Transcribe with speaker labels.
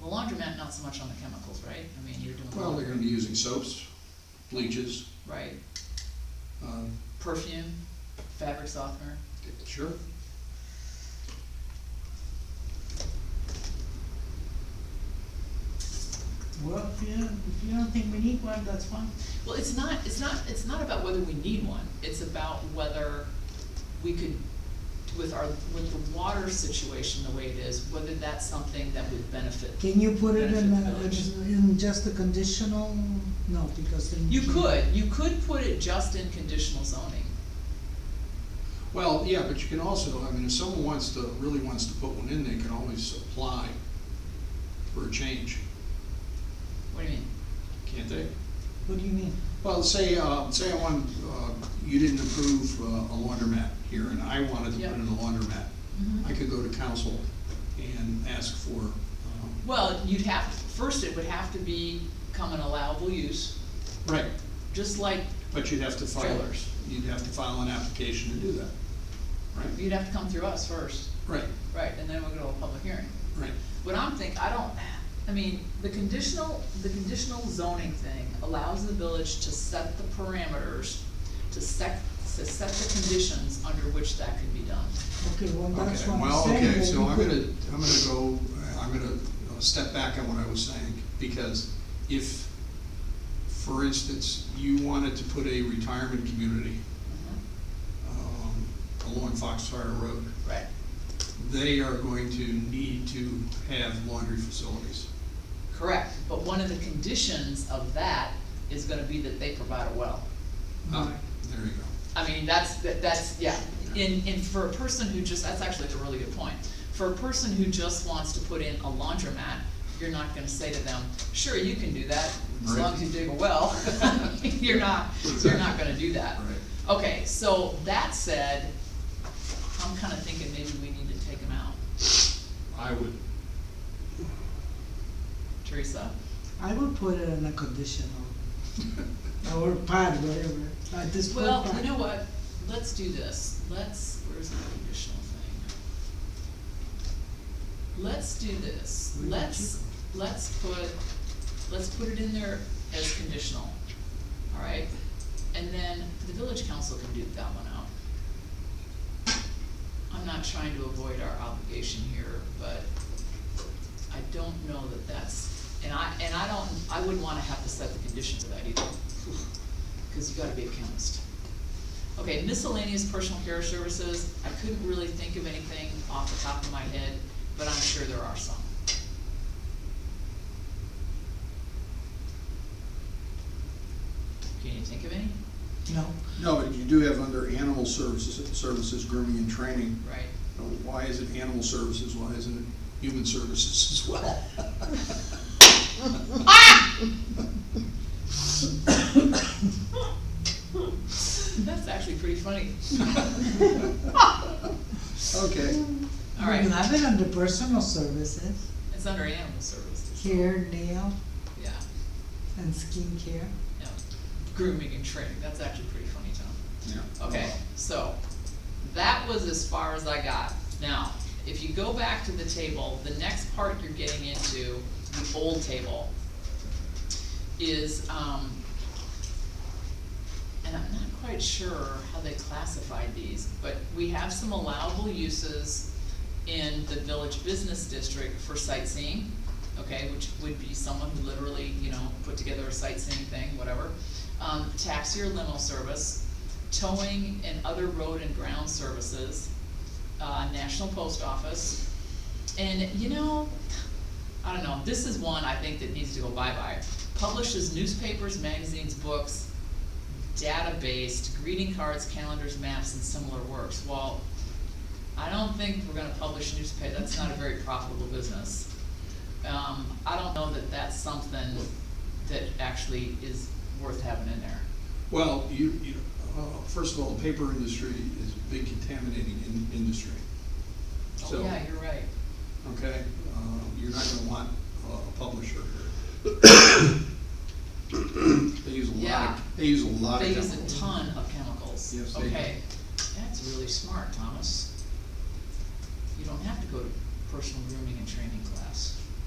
Speaker 1: The laundromat, not so much on the chemicals, right? I mean, you're doing.
Speaker 2: Well, they're gonna be using soaps, bleaches,
Speaker 1: Right,
Speaker 2: um,
Speaker 1: perfume, fabric softener,
Speaker 2: sure.
Speaker 3: Well, if you, don't- if you don't think we need one, that's fine.
Speaker 1: Well, it's not, it's not, it's not about whether we need one, it's about whether we could, with our, with the water situation the way it is, whether that's something that would benefit.
Speaker 3: Can you put it in,
Speaker 1: Benefit
Speaker 3: a-
Speaker 1: village.
Speaker 3: in just a conditional, no, because then.
Speaker 1: You could, you could put it just in conditional zoning.
Speaker 2: Well, yeah, but you can also, I mean, if someone wants to, really wants to put one in, they can always apply for a change,
Speaker 1: What do you mean?
Speaker 2: can't they?
Speaker 3: What do you mean?
Speaker 2: Well, say, uh, say I want, uh, you didn't approve uh, a laundromat here, and I wanted to
Speaker 1: Yeah.
Speaker 2: put in a laundromat. I could go to council and ask for, um,
Speaker 1: Well, you'd have, first it would have to be become an allowable use,
Speaker 2: right,
Speaker 1: just like
Speaker 2: but you'd have to file,
Speaker 1: Trailers.
Speaker 2: you'd have to file an application to do that. Right,
Speaker 1: you'd have to come through us first,
Speaker 2: right,
Speaker 1: right, and then we go to a public hearing.
Speaker 2: right.
Speaker 1: What I'm think, I don't, I mean, the conditional, the conditional zoning thing allows the village to set the parameters, to set, to set the conditions under which that could be done.
Speaker 3: Okay, well, that's
Speaker 2: Okay,
Speaker 3: what
Speaker 2: well,
Speaker 3: I'm saying.
Speaker 2: okay,
Speaker 3: that
Speaker 2: so
Speaker 3: you
Speaker 2: I'm
Speaker 3: could-
Speaker 2: gonna, I'm gonna go, I'm gonna uh, step back on what I was saying, because if, for instance, you wanted to put a retirement community, um, along Foxfire Road,
Speaker 1: Right.
Speaker 2: they are going to need to have laundry facilities.
Speaker 1: Correct, but one of the conditions of that is gonna be that they provide a well.
Speaker 2: Ah,
Speaker 3: Right.
Speaker 2: There you go.
Speaker 1: I mean, that's, that- that's, yeah, in, in, for a person who just, that's actually a really good point. For a person who just wants to put in a laundromat, you're not gonna say to them, sure, you can do that, as long as you dig a well. You're not, you're not gonna do that.
Speaker 2: Right.
Speaker 1: Okay, so that said, I'm kinda thinking maybe we need to take them out.
Speaker 2: I would.
Speaker 1: Teresa?
Speaker 3: I would put it in a conditional, or part, whatever, at this point.
Speaker 1: Well,
Speaker 3: part.
Speaker 1: you know what, let's do this, let's, where's the conditional thing? Let's do this,
Speaker 3: Where did
Speaker 1: let's, let's put, let's put it in there as conditional, alright? And then the village council can duke that one out. I'm not trying to avoid our obligation here, but I don't know that that's, and I, and I don't, I wouldn't wanna have to set the conditions of that either, cause you gotta be a chemist. Okay, miscellaneous personal care services, I couldn't really think of anything off the top of my head, but I'm sure there are some. Can you think of any?
Speaker 3: No,
Speaker 2: No, but you do have under animal services, services grooming and training, Uh,
Speaker 1: Right.
Speaker 2: why is it animal services, why isn't it human services as well?
Speaker 1: That's actually pretty funny.
Speaker 2: Okay.
Speaker 1: All
Speaker 3: you
Speaker 1: right,
Speaker 3: have it under personal services,
Speaker 1: it's under animal services,
Speaker 3: hair, nail,
Speaker 1: yeah,
Speaker 3: and skincare.
Speaker 1: yeah. Grooming and training, that's actually pretty funny, Tom.
Speaker 2: Yeah. Uh,
Speaker 1: Okay, so, that was as far as I got. Now, if you go back to the table, the next part you're getting into, the old table, is, um, and I'm not quite sure how they classified these, but we have some allowable uses in the village business district for sightseeing, okay, which would be someone who literally, you know, put together a sightseeing thing, whatever. Um, taxi or limo service, towing and other road and ground services, uh, national post office. And, you know, I don't know, this is one I think that needs to go bye-bye. Publishes newspapers, magazines, books, data-based, greeting cards, calendars, maps, and similar works. Well, I don't think we're gonna publish newspaper, that's not a very profitable business. Um, I don't know that that's something that actually is worth having in there.
Speaker 2: Well, you, you, uh, first of all, the paper industry is a big contaminating in, industry.
Speaker 1: Oh,
Speaker 2: So-
Speaker 1: yeah, you're right.
Speaker 2: Okay, uh, you're not gonna want a- a publisher here. They use a lot,
Speaker 1: Yeah.
Speaker 2: of- they use a lot of
Speaker 1: They use
Speaker 2: chemicals.
Speaker 1: a ton of chemicals.
Speaker 2: Yes, they do.
Speaker 1: Okay, that's really smart, Thomas. You don't have to go to personal grooming and training class.